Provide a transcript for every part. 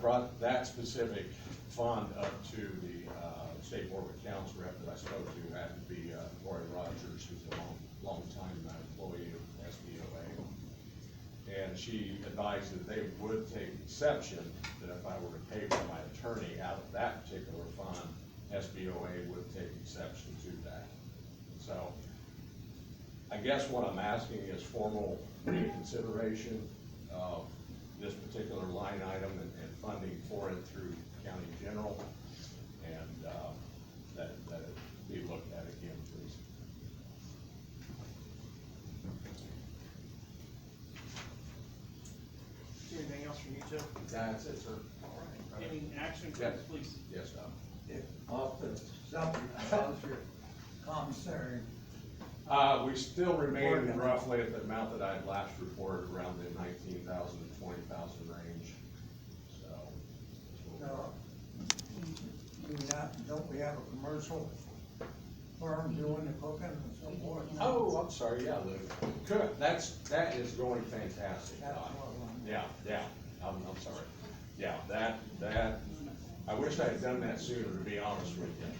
brought that specific fund up to the, uh, state board of accounts rep that I spoke to, had to be, uh, Lori Rogers, who's a long, long time employee of SBOA. And she advised that they would take exception, that if I were to pay for my attorney out of that particular fund, SBOA would take exception to that. So, I guess what I'm asking is formal reconsideration of this particular line item and, and funding for it through county general. And, um, that, that it be looked at again, please. Anything else from you, Joe? That's it, sir. All right. Any action from Yes. the police? Yes, sir. If off the subject, how's your commissary? Uh, we still remain roughly at the amount that I had last reported, around the nineteen thousand to twenty thousand range, so. that's what we're- Now, uh, do we not, don't we have a commercial firm doing the cooking and so forth? Oh, I'm sorry, yeah, Lou. Good, that's, that is going fantastic, That's Doc. what I'm- Yeah, yeah, I'm, I'm sorry. Yeah, that, that, I wish I had done that sooner, to be honest with you.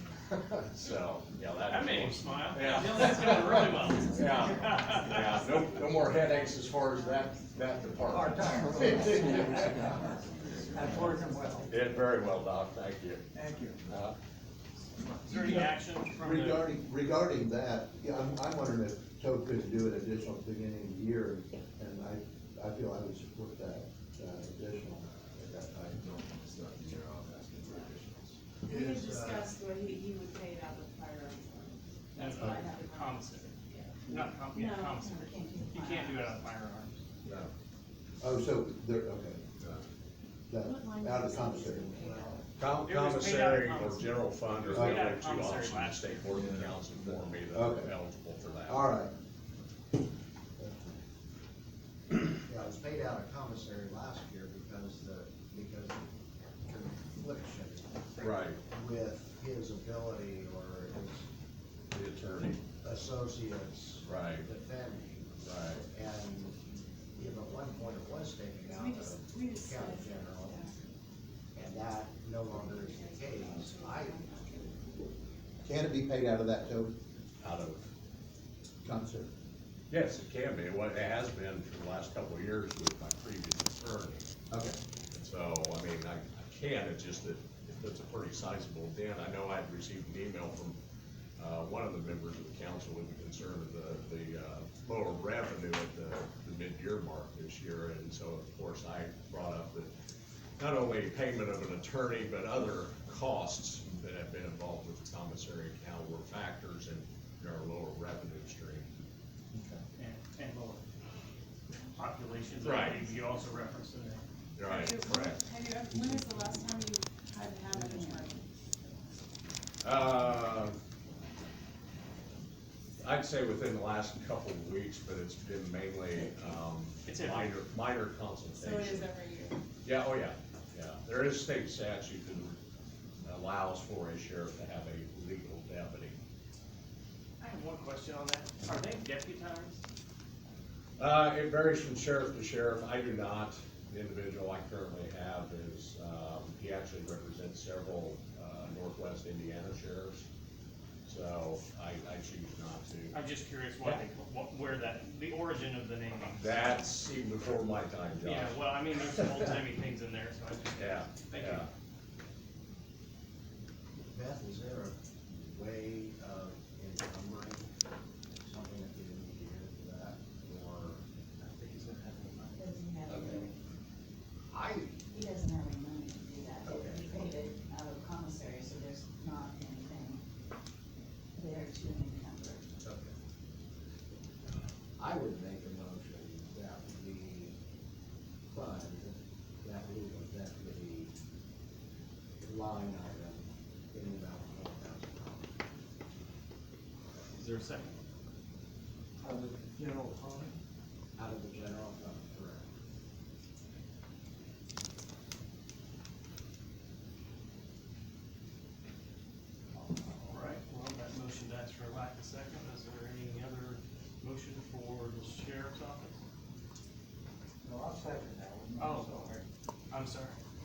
So, yeah, that. That made him smile. Yeah. No, That's going really well. Yeah, yeah, no, no more headaches as far as that, that Part department. time. That's working well, Did very well, Doc, thank you. thank you. Uh, Is there any action from the, Regarding, regarding that, yeah, I'm, I'm wondering if Toad could do an additional at the beginning of the year, and I, I feel I would support that, uh, additional at that time. We uh, had discussed what he, he would pay it out of the fire. alarm. That's what I have. in the mind. commissary? Not com, yeah, No, commissary. we can't do You can't do it on firearms. No. Oh, so, there, okay. What line That, out of is it? commissary. com- It was paid out Commissary or of commissary. general fund It are was the paid out only of two commissary options, the last state board of accounts informed me that I'm Okay. eligible for that. All right, Yeah, it was paid out of commissary last year because the, because the confliction Right, with his ability or his the attorney, associates right, defending. right. And, you know, at one point it was taken out We just, of we just. county general, and that no longer is the case. I, can it be paid out of that, Toad, Out of, commissary? yes, it can be, what it has been for the last couple of years with my previous attorney. Okay, So, I mean, I, I can, it's just that it's a pretty sizable dent. I know I'd received an email from, uh, one of the members of the council with the concern of the, the, uh, lower revenue at the, the mid-year mark this year. And so, of course, I brought up that not only payment of an attorney, but other costs that have been involved with the commissary account were factors in our lower revenue stream. And, and lower populations. I Right. believe You also referenced in there. Right, correct. Have you, ever- uh, when is the last time you had to have an attorney? Uh, I'd say within the last couple of weeks, but it's been mainly, um, It's every- minor, minor So it is consultation. every year. Yeah, oh yeah, yeah. There is state statute that allows for a sheriff to have a legal deputy. I have one question on that. Are they deputized? Uh, it varies from sheriff to sheriff. I do not. The individual I currently have is, um, he actually represents several, uh, Northwest Indiana sheriffs. So I, I choose not to. I'm just curious why they, what, where that, the origin of the name. That's even before my time, Josh. Yeah, well, I mean, there's some old-timey things in there, so I just. Yeah, Thank you. yeah. Beth, is there a way of encumbering something at the end of the year for that, or? Doesn't have any, I, he doesn't have any money to do that, Okay. he paid it out of commissary, so there's not anything there to encumber. I would make a motion that we fund that legal deputy line item in about four thousand dollars. Is there a second? Out of the general fund, Out of the general